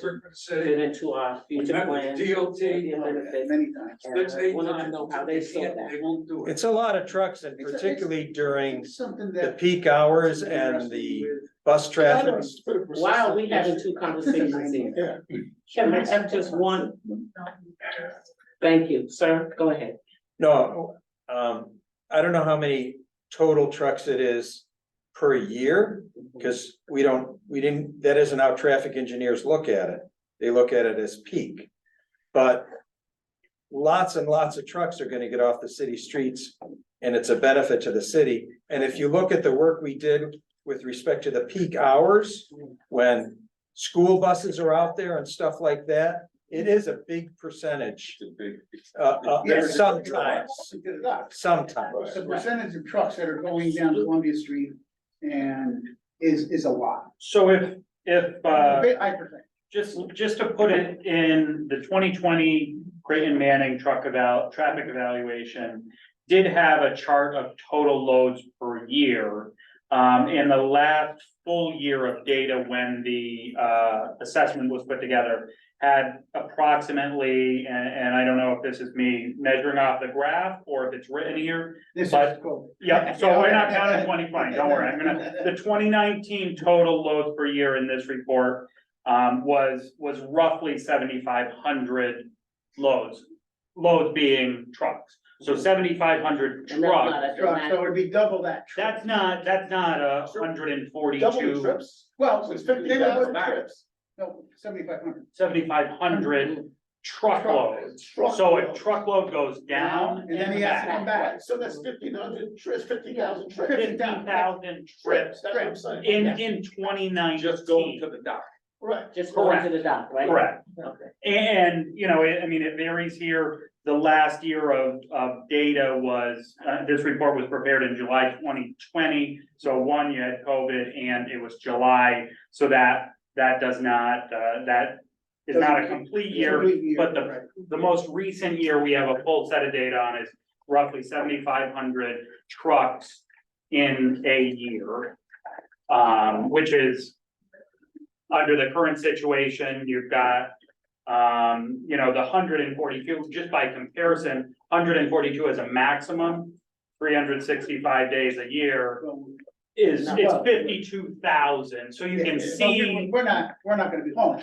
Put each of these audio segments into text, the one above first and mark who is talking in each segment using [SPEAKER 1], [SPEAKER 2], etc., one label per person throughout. [SPEAKER 1] Circuit
[SPEAKER 2] fit
[SPEAKER 1] City,
[SPEAKER 2] into our future
[SPEAKER 1] met
[SPEAKER 2] plan.
[SPEAKER 1] with DOT,
[SPEAKER 2] Yeah,
[SPEAKER 3] Many
[SPEAKER 2] benefits.
[SPEAKER 3] times.
[SPEAKER 2] And
[SPEAKER 1] six,
[SPEAKER 2] I
[SPEAKER 1] eight
[SPEAKER 2] wanted to
[SPEAKER 1] times,
[SPEAKER 2] know how
[SPEAKER 1] they
[SPEAKER 2] they saw
[SPEAKER 1] can't,
[SPEAKER 2] that.
[SPEAKER 1] they won't do it.
[SPEAKER 4] It's a lot of trucks and
[SPEAKER 3] It's a- it's-
[SPEAKER 4] particularly during
[SPEAKER 3] It's Something
[SPEAKER 4] the
[SPEAKER 3] that.
[SPEAKER 4] peak hours and the bus
[SPEAKER 3] I
[SPEAKER 4] traffic.
[SPEAKER 3] don't-
[SPEAKER 2] Why are we having two conversations here? Can I have just one? Thank you, sir, go ahead.
[SPEAKER 4] No, um, I don't know how many total trucks it is per year. Cause we don't, we didn't, that isn't how traffic engineers look at it. They look at it as peak. But lots and lots of trucks are gonna get off the city streets and it's a benefit to the city. And if you look at the work we did with respect to the peak hours, when school buses are out there and stuff like that, it is a big percentage. Uh, uh,
[SPEAKER 3] Yes.
[SPEAKER 4] sometimes, sometimes.
[SPEAKER 3] The percentage of trucks that are going down Columbia Street and is, is a lot.
[SPEAKER 5] So if, if,
[SPEAKER 3] A
[SPEAKER 5] uh,
[SPEAKER 3] bit high percent.
[SPEAKER 5] just, just to put it in the twenty twenty Creighton Manning truck eval, traffic evaluation. Did have a chart of total loads per year. Um, in the last full year of data, when the, uh, assessment was put together. Had approximately, and, and I don't know if this is me measuring off the graph or if it's written here.
[SPEAKER 3] This is
[SPEAKER 5] But-
[SPEAKER 3] cool.
[SPEAKER 5] Yeah, so we're not counting twenty twenty, don't worry, I'm gonna, the twenty nineteen total loads per year in this report. Um, was, was roughly seventy-five hundred loads, loads being trucks, so seventy-five hundred
[SPEAKER 2] And that's not
[SPEAKER 5] trucks.
[SPEAKER 2] a
[SPEAKER 3] Trucks, so
[SPEAKER 2] dramatic,
[SPEAKER 3] it would be double that.
[SPEAKER 5] That's not, that's not a hundred and forty-two,
[SPEAKER 3] Well, it's fifty thousand
[SPEAKER 5] Back.
[SPEAKER 3] trips. No, seventy-five hundred.
[SPEAKER 5] seventy-five hundred truckloads. So if truckload goes down
[SPEAKER 3] And then he has to come back. So that's
[SPEAKER 6] fifteen hundred trips, fifty
[SPEAKER 3] thousand trips.
[SPEAKER 5] fifty thousand trips
[SPEAKER 3] that's what I'm
[SPEAKER 6] saying.
[SPEAKER 5] in, in twenty nineteen.
[SPEAKER 1] Just go to the dock.
[SPEAKER 6] Right.
[SPEAKER 2] just going to the dock, right?
[SPEAKER 5] Correct.
[SPEAKER 2] Okay.
[SPEAKER 5] And, you know, it- I mean, it varies here. The last year of, of data was, uh, this report was prepared in July twenty twenty. So one, you had COVID and it was July, so that, that does not, uh, that is not a complete year. but the- The most recent year we have a full set of data on is roughly seventy-five hundred trucks in a year. Um, which is, under the current situation, you've got, um, you know, the hundred and forty-two, just by comparison, hundred and forty-two is a maximum, three hundred sixty-five days a year is, it's fifty-two thousand, so you can see,
[SPEAKER 3] We're not, we're not gonna be home.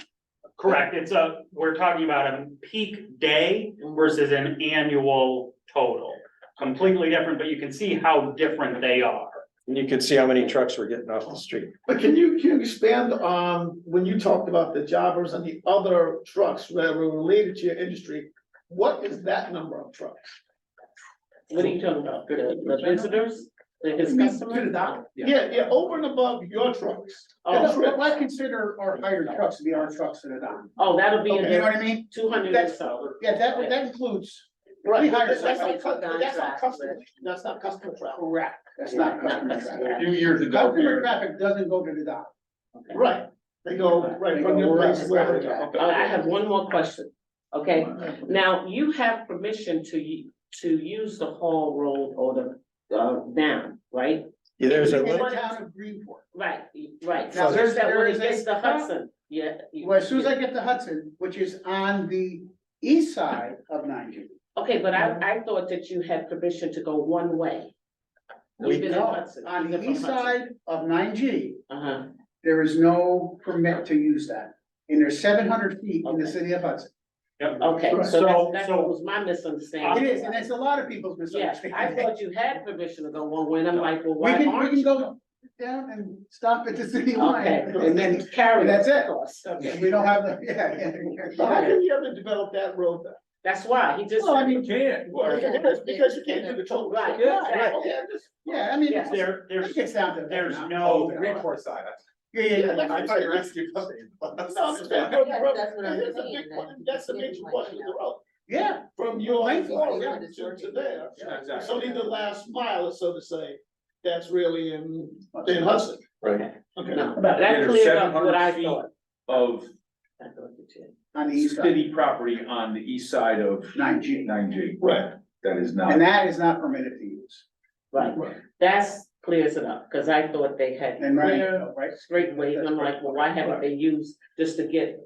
[SPEAKER 5] correct, it's a, we're talking about a peak day versus an annual total. Completely different, but you can see how different they are.
[SPEAKER 4] And you can see how many trucks were getting off the street.
[SPEAKER 6] But can you, can you expand on, when you talked about the jobbers and the other trucks that were related to your industry? What is that number of trucks?
[SPEAKER 2] What are you talking about, the, the visitors, the- his
[SPEAKER 3] To the
[SPEAKER 2] customers?
[SPEAKER 3] dock.
[SPEAKER 1] Yeah.
[SPEAKER 6] Yeah, yeah, over and above your trucks.
[SPEAKER 3] Yeah,
[SPEAKER 6] Oh,
[SPEAKER 3] no, but
[SPEAKER 6] trucks.
[SPEAKER 3] I consider our hired trucks to be our trucks to the dock.
[SPEAKER 2] Oh, that'll be
[SPEAKER 3] You
[SPEAKER 2] in
[SPEAKER 3] know
[SPEAKER 2] there,
[SPEAKER 3] what I mean?
[SPEAKER 2] two hundred and
[SPEAKER 3] That's-
[SPEAKER 2] so.
[SPEAKER 3] Yeah, that, that includes,
[SPEAKER 6] Right,
[SPEAKER 3] hire
[SPEAKER 6] that's not,
[SPEAKER 2] somebody.
[SPEAKER 6] cu- but that's not customer, that's not customer travel.
[SPEAKER 3] correct, that's not customer traffic.
[SPEAKER 1] A few years ago, we
[SPEAKER 3] Customer
[SPEAKER 1] were-
[SPEAKER 3] traffic doesn't go to the dock.
[SPEAKER 6] Right, they go, right, from your place wherever. they go.
[SPEAKER 2] Uh, I have one more question, okay? Now, you have permission to u- to use the whole road or the, uh, down, right?
[SPEAKER 4] Yeah, There's a,
[SPEAKER 3] In the
[SPEAKER 4] li-
[SPEAKER 3] town of Greenport.
[SPEAKER 2] Right, right.
[SPEAKER 3] Now, there's-
[SPEAKER 2] That
[SPEAKER 3] there
[SPEAKER 2] when
[SPEAKER 3] is
[SPEAKER 2] it
[SPEAKER 3] a-
[SPEAKER 2] gets to Hudson, yeah. you-
[SPEAKER 3] Well, as soon as I get to Hudson, which is on the east side of ninety.
[SPEAKER 2] Okay, but
[SPEAKER 3] Uh-huh.
[SPEAKER 2] I, I thought that you had permission to go one way.
[SPEAKER 4] We
[SPEAKER 2] Even in
[SPEAKER 3] No,
[SPEAKER 2] Hudson,
[SPEAKER 3] on
[SPEAKER 2] even
[SPEAKER 3] the
[SPEAKER 2] from
[SPEAKER 3] east
[SPEAKER 2] Hudson.
[SPEAKER 3] side of nine G,
[SPEAKER 2] Uh-huh,
[SPEAKER 3] there is no permit to use that. And there's seven hundred feet in the
[SPEAKER 2] Okay.
[SPEAKER 3] city of Hudson.
[SPEAKER 2] okay, so
[SPEAKER 5] So-
[SPEAKER 2] that's, that's
[SPEAKER 5] so-
[SPEAKER 2] what was my
[SPEAKER 3] It
[SPEAKER 2] misunderstanding.
[SPEAKER 3] is, and it's a lot of people's
[SPEAKER 2] Yeah, I
[SPEAKER 3] misunderstanding.
[SPEAKER 2] thought you had permission to go one way, and I'm like, well,
[SPEAKER 3] We
[SPEAKER 2] why
[SPEAKER 3] can, we
[SPEAKER 2] aren't
[SPEAKER 3] can
[SPEAKER 2] you?
[SPEAKER 3] go down and stop at the city
[SPEAKER 2] Okay,
[SPEAKER 3] line.
[SPEAKER 2] and then carry.
[SPEAKER 3] That's it.
[SPEAKER 2] of course. Okay.
[SPEAKER 3] We don't have the, yeah, yeah.
[SPEAKER 6] But how can you ever develop that road then?
[SPEAKER 2] That's why, he just.
[SPEAKER 3] Well, I mean,
[SPEAKER 1] You can't.
[SPEAKER 6] Well, Because, because you can't do the total.
[SPEAKER 2] Right,
[SPEAKER 6] Yeah,
[SPEAKER 2] right.
[SPEAKER 6] okay, I'm just-
[SPEAKER 3] Yeah, I mean,
[SPEAKER 2] Yes.
[SPEAKER 3] it
[SPEAKER 5] There, there's
[SPEAKER 3] gets down to. Oh,
[SPEAKER 5] there's no-
[SPEAKER 1] side.
[SPEAKER 3] Yeah, yeah, yeah.
[SPEAKER 6] Yeah, that's- No, I'm just saying, go to the road. And here's a big one, that's a major part of the road,
[SPEAKER 3] Yeah,
[SPEAKER 6] from your
[SPEAKER 3] Right.
[SPEAKER 6] floor to to there.
[SPEAKER 1] Yeah,
[SPEAKER 6] So
[SPEAKER 1] exactly.
[SPEAKER 6] need the last mile, so to say, that's really in, in Hudson.
[SPEAKER 4] right,
[SPEAKER 6] Okay.
[SPEAKER 2] No,
[SPEAKER 1] About-
[SPEAKER 2] that
[SPEAKER 1] There's
[SPEAKER 2] cleared up what
[SPEAKER 1] 700
[SPEAKER 2] I
[SPEAKER 1] feet.
[SPEAKER 2] thought.
[SPEAKER 1] Of
[SPEAKER 2] I thought you did.
[SPEAKER 3] on the east side,
[SPEAKER 1] city property on the east side of
[SPEAKER 3] nine G.
[SPEAKER 1] nine G,
[SPEAKER 6] Right.
[SPEAKER 1] that is not.
[SPEAKER 3] And that is not permitted to use.
[SPEAKER 2] Right, that's clears it up, cause I thought they had
[SPEAKER 3] And right,
[SPEAKER 2] clear,
[SPEAKER 3] right,
[SPEAKER 2] straight ways, and I'm like, well, why haven't they used just to get